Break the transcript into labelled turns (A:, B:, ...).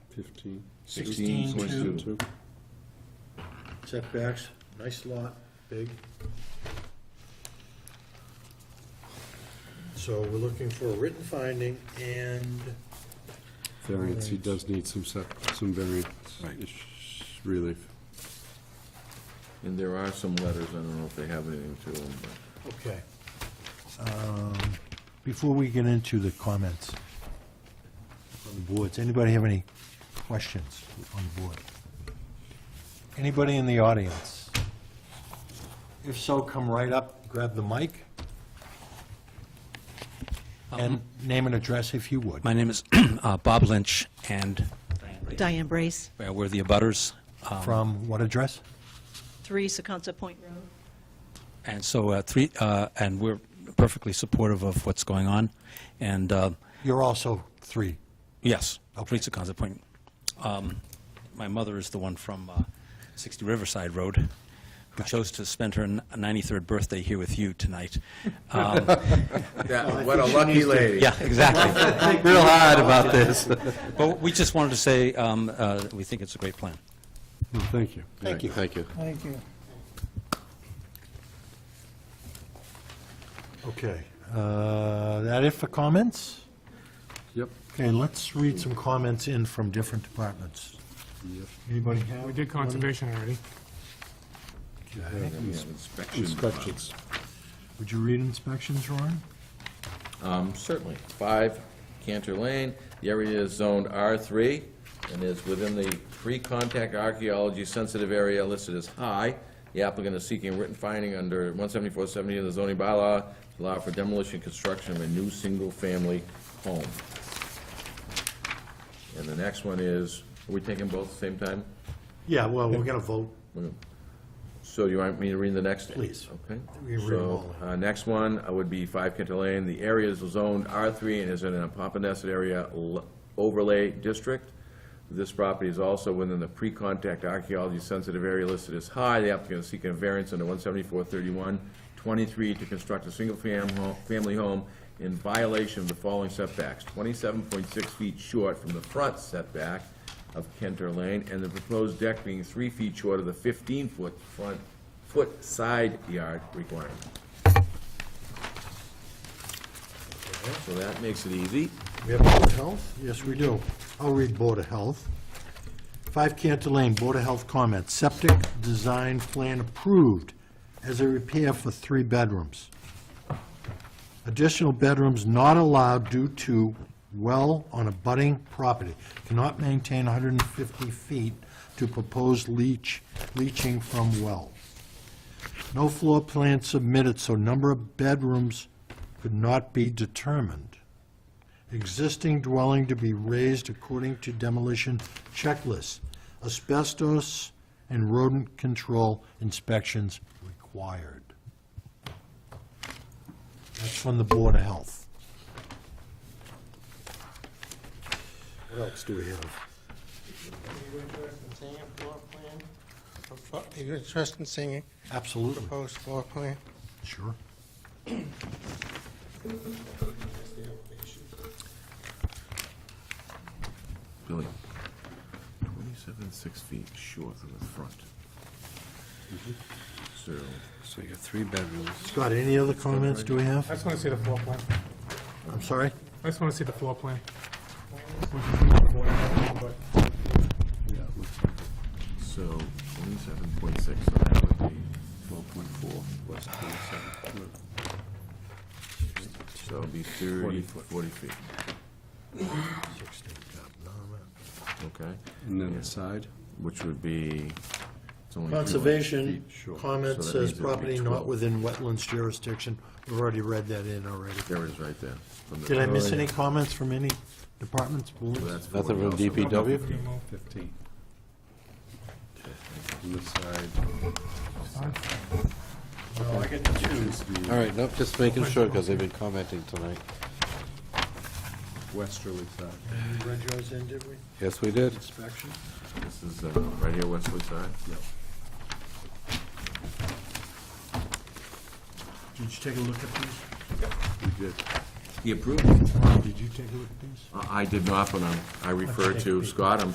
A: fifteen,
B: 16,
C: Point
B: two.
A: two.
C: Setbacks, nice lot, big. So we're looking for a written finding and
A: Variance, he does need some sep, some variance
D: Right.
A: ish- relief.
D: And there are some letters, I don't know if they have anything to them, but.
C: Okay. Um, Before we get into the comments on the boards, anybody have any questions on the board? Anybody in the audience? If so, come right up, grab the mic, and name and address if you would.
E: My name is uh, Bob Lynch, and
F: Diane Brace,
E: uh, we're the abutters. um,
C: From what address?
F: 3 Secunza Point Road.
E: And so, uh, three, uh, and we're perfectly supportive of what's going on. And, uh,
C: You're also three.
E: yes,
C: Okay.
E: Teresa Conza Point. Um, My mother is the one from uh, 60 Riverside Road, who chose to spend her n- 93rd birthday here with you tonight. Um,
D: Yeah, what a lucky lady.
E: Yeah, exactly. Real hard about this. But we just wanted to say, um, uh, we think it's a great plan.
A: No, thank you.
C: Thank you.
A: Thank you.
B: Thank you.
C: Okay. Uh, That it for comments?
A: Yep,
C: Okay, let's read some comments in from different departments.
A: yep.
C: Anybody have?
B: We did conservation already.
C: Okay.
D: We have inspection.
A: Inspections.
C: Would you read inspections, Ron?
D: Um, Certainly. Five Cantor Lane, the area is zoned R3 and is within the pre-contact archaeology sensitive area listed as high. The applicant is seeking written finding under 17470 of the zoning bylaw to allow for demolition and construction of a new single-family home. And the next one is, are we taking both at the same time?
C: Yeah, well, we're going to vote.
D: So you want me to read the next? one?
C: Please.
D: Okay.
C: We can read them
D: So,
C: all.
D: uh, next one uh, would be Five Kinter Lane. The area is zoned R3 and is in a Pompanesett area l- overlay district. This property is also within the pre-contact archaeology-sensitive area listed as high. The applicant is seeking a variance under 174-31-23 to construct a single-family home, family home in violation of the following setbacks: 27.6 feet short from the front setback of Kenter Lane, and the proposed deck being three feet short of the 15-foot front, foot side yard requirement. So that makes it easy.
C: We have Board of Health? Yes, we do. I'll read Board of Health. Five Cantor Lane, Board of Health comments. Septic design plan approved as a repair for three bedrooms. Additional bedrooms not allowed due to well on a budding property. Cannot maintain 150 feet to proposed leach, leaching from well. No floor plan submitted, so number of bedrooms could not be determined. Existing dwelling to be raised according to demolition checklist. Asbestos and rodent control inspections required. That's from the Board of Health. What else do we have?
G: Are you interested in seeing a floor plan? Are you interested in seeing a
C: Absolutely,
G: proposed floor plan?
C: sure.
D: Billy, twenty-seven, six feet short of the front. So,
A: So you got three bedrooms.
C: Scott, any other comments do we
B: I
C: have?
B: just want to see the floor plan.
C: I'm sorry?
B: I just want to see the floor plan. Which is not important, but
A: Yeah, it looks like
D: so twenty-seven point six, so that would be twelve point four plus twenty-seven. So it'd be thirty, forty feet, okay?
A: it. And then the side.
D: Which would be, it's only. two hundred
C: Conservation
D: feet short,
C: comment
D: so that means
C: says
D: it would be
C: property not
D: 12.
C: within wetlands jurisdiction. We've already read that in already.
D: There it is, right there. from the-
C: Did I miss any comments from any departments, boards?
D: So that's
A: Nothing
D: 40
A: from
D: also.
A: DPW?
B: we remove-
A: Fifteen. And the side.
H: All right, nope, just making sure, because they've been commenting tonight.
A: Westerly side.
C: We read yours in, did we?
H: Yes, we did.
C: Inspection?
D: This is, uh, right here, Wesley side? Yep.
C: Did you take a look at these?
A: We did.
D: He approved.
C: Did you take a look at these?
D: Uh, I I did not, but I'm- I refer to Scott, I'm